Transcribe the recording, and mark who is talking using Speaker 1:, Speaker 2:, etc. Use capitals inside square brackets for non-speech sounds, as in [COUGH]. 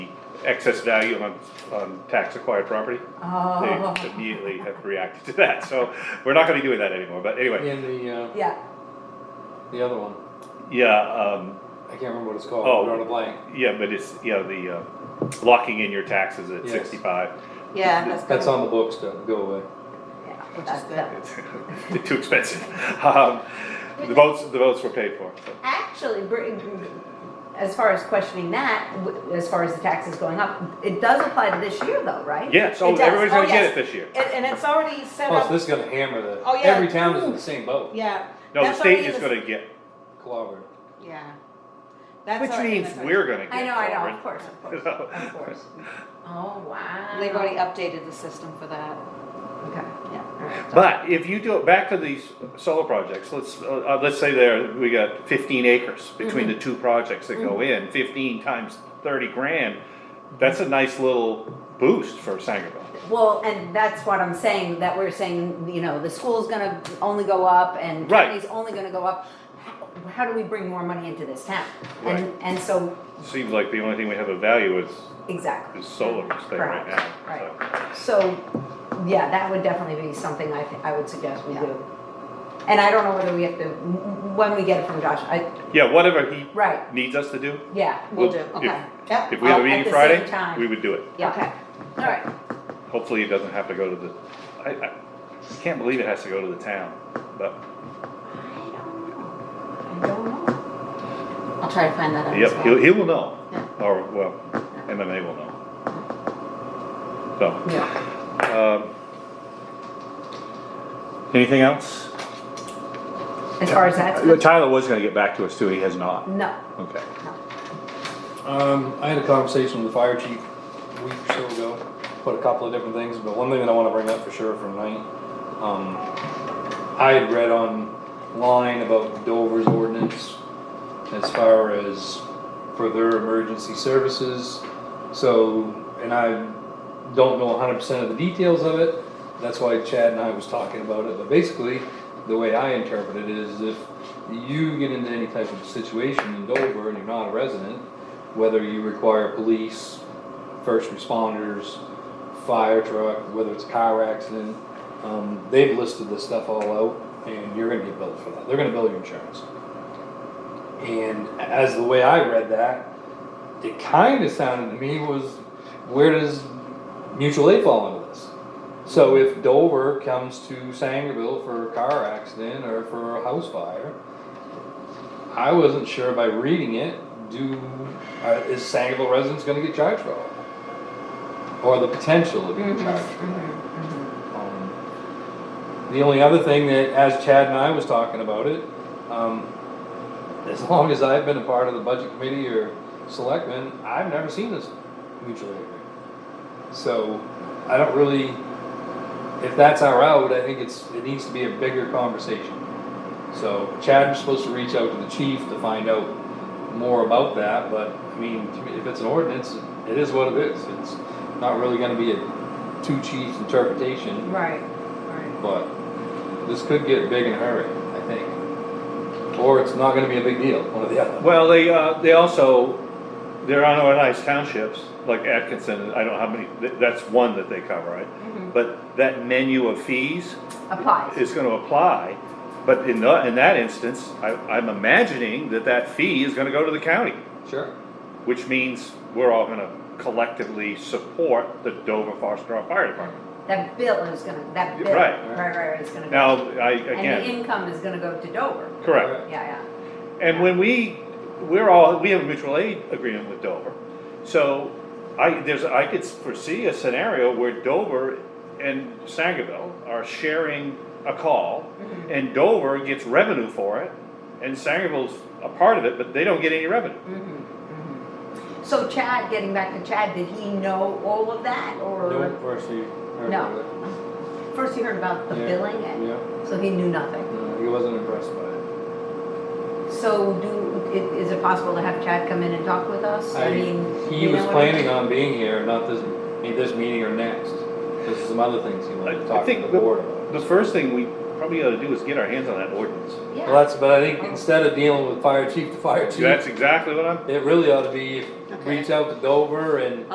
Speaker 1: excess value on, on tax acquired property.
Speaker 2: Oh.
Speaker 1: They immediately have reacted to that, so we're not gonna be doing that anymore, but
Speaker 3: [LAUGHS]
Speaker 1: anyway,
Speaker 3: And the, uh,
Speaker 2: Yeah,
Speaker 3: the other one,
Speaker 1: yeah, um,
Speaker 3: I can't remember what it's called,
Speaker 1: Oh.
Speaker 3: I wrote a blank.
Speaker 1: yeah, but it's, yeah, the, uh, locking in your taxes at
Speaker 3: Yes.
Speaker 1: sixty-five.
Speaker 2: yeah, that's.
Speaker 3: That's
Speaker 2: gonna-
Speaker 3: on the books to go away.
Speaker 2: Yeah,
Speaker 4: Which
Speaker 2: that's
Speaker 4: is
Speaker 2: good.
Speaker 1: It's [LAUGHS] Too expensive. Um, the votes, the votes were paid for, so.
Speaker 2: Actually, br- as far as questioning that, w- as far as the taxes going up, it does apply to this year though, right?
Speaker 1: Yeah, so
Speaker 2: It does.
Speaker 1: everybody's
Speaker 2: Oh,
Speaker 1: gonna get
Speaker 2: yes.
Speaker 1: it this year.
Speaker 2: And, and it's already set
Speaker 3: Plus,
Speaker 2: up,
Speaker 3: Oh, this is gonna hammer the,
Speaker 4: Oh, yeah.
Speaker 3: every town is in the same boat,
Speaker 4: Yeah.
Speaker 1: No, the
Speaker 4: that's already
Speaker 1: state
Speaker 4: in
Speaker 1: is
Speaker 4: the-
Speaker 1: gonna get,
Speaker 3: clobbered.
Speaker 4: Yeah. That's
Speaker 1: which
Speaker 4: already in
Speaker 1: means
Speaker 4: the-
Speaker 1: we're gonna get.
Speaker 2: I know, I know,
Speaker 1: covered.
Speaker 2: of course,
Speaker 1: [LAUGHS]
Speaker 2: of course,
Speaker 1: So-
Speaker 2: of course. Oh, wow.
Speaker 4: They've already updated the system for that.
Speaker 2: Okay, yeah, all right.
Speaker 1: But if you do it, back to these solar projects, let's, uh, uh, let's say there, we got fifteen acres between
Speaker 2: Mm-hmm.
Speaker 1: the two projects that go in, fifteen times thirty grand, that's a nice little boost for Sangerville.
Speaker 2: Well, and that's what I'm saying, that we're saying, you know, the school's gonna only go up and
Speaker 1: Right.
Speaker 2: county's only gonna go up. How- How do we bring more money into this town?
Speaker 1: Right.
Speaker 2: And, and so,
Speaker 1: Seems like the only thing we have of value is,
Speaker 2: exactly.
Speaker 1: is solar thing right now.
Speaker 2: Correct, right.
Speaker 1: so.
Speaker 2: So, yeah, that would definitely be something I, thi- I would suggest we
Speaker 4: Yeah.
Speaker 2: do. And I don't know whether we have to, when we get it from Josh, I,
Speaker 1: Yeah, whatever he
Speaker 2: right,
Speaker 1: needs us to do,
Speaker 2: yeah,
Speaker 4: We'll
Speaker 1: Well,
Speaker 4: do,
Speaker 1: if-
Speaker 4: okay. Yeah.
Speaker 1: if we have a
Speaker 2: Well, at
Speaker 1: meeting
Speaker 2: the
Speaker 1: Friday,
Speaker 2: same time.
Speaker 1: we would do it.
Speaker 2: yeah.
Speaker 4: Okay. All right.
Speaker 1: Hopefully it doesn't have to go to the, I, I can't believe it has to go to the town, but,
Speaker 2: I don't know, I don't know.
Speaker 4: I'll try to find that out. as
Speaker 1: yep,
Speaker 4: well.
Speaker 1: he'll, he will know.
Speaker 4: Yeah.
Speaker 1: Or, well, MMA will know. So.
Speaker 2: Yeah.
Speaker 1: Um, Anything else?
Speaker 2: As far as that's,
Speaker 1: Uh, Tyler was gonna get back to us too, he has not,
Speaker 2: no,
Speaker 1: okay.
Speaker 2: no.
Speaker 3: Um, I had a conversation with the fire chief a week or so ago, about a couple of different things, but one thing that I wanna bring up for sure for tonight, um, I had read online about Dover's ordinance as far as for their emergency services, so, and I don't know hundred percent of the details of it, that's why Chad and I was talking about it, but basically, the way I interpret it is if you get into any type of situation in Dover and you're not a resident, whether you require police, first responders, fire truck, whether it's a car accident, um, they've listed this stuff all out, and you're gonna get billed for that, they're gonna bill your insurance. And as the way I read that, it kinda sounded to me was, where does mutual aid fall into this? So if Dover comes to Sangerville for a car accident or for a house fire, I wasn't sure by reading it, do, uh, is Sangerville residents gonna get charged for all? that? Or the potential of being charged for that? Um, The only other thing that, as Chad and I was talking about it, um, as [LAUGHS] long as I've been a part of the budget committee or selectmen, I've never seen this mutual aid agreement. So, I don't really, if that's our route, I think it's, it needs to be a bigger conversation. So Chad was supposed to reach out to the chief to find out more about that, but, I mean, to me, if it's an ordinance, it is what it is. It's not really gonna be a two chiefs interpretation,
Speaker 2: Right, right.
Speaker 3: but this could get big in a hurry, I think. Or it's not gonna be a big deal, one or the other.
Speaker 1: Well, they, uh, they also, there are no nice townships, like Atkinson, I don't know how many, th- that's one that they cover, right? But that menu of fees
Speaker 2: Mm-hmm. Applies,
Speaker 1: is gonna apply, but in the, in that instance, I, I'm imagining that that fee is gonna go to the county,
Speaker 3: Sure.
Speaker 1: which means we're all gonna collectively support the Dover Foster Rock Fire Department.
Speaker 2: that bill is gonna, that bill,
Speaker 1: Right.
Speaker 2: right, right, right, is gonna go.
Speaker 1: Now, I,
Speaker 2: And the
Speaker 1: again,
Speaker 2: income is gonna go to Dover,
Speaker 1: correct.
Speaker 2: yeah,
Speaker 1: And when we, we're all, we have a mutual aid agreement with Dover. So I, there's, I could foresee a scenario where Dover and Sangerville are sharing a call
Speaker 2: Mm-hmm.
Speaker 1: and Dover gets revenue for it and Sangerville's a part of it, but they don't get any revenue.
Speaker 2: yeah. So Chad, getting back to Chad, did he know all of that,
Speaker 3: No,
Speaker 2: or
Speaker 3: first you heard
Speaker 2: No.
Speaker 3: about it.
Speaker 2: first he heard about the
Speaker 3: Yeah.
Speaker 2: billing, and,
Speaker 3: Yeah,
Speaker 2: so he knew nothing?
Speaker 3: no, he wasn't impressed by it.
Speaker 2: So do, i- is it possible to have Chad come in and talk with us? I
Speaker 3: I-
Speaker 2: mean,
Speaker 3: He
Speaker 2: you
Speaker 3: was
Speaker 2: know what I mean?
Speaker 3: planning on being here, not this, me- this meeting or next. There's some other things he wanted
Speaker 1: I- I
Speaker 3: to talk to
Speaker 1: think
Speaker 3: the
Speaker 1: the-
Speaker 3: board about.
Speaker 1: The first thing we probably ought to do is get our hands on that ordinance.
Speaker 3: Well, that's, but I think instead of dealing with fire chief to fire chief,
Speaker 1: That's exactly what I'm
Speaker 3: it really ought to be,
Speaker 4: Okay.
Speaker 3: reach out to Dover and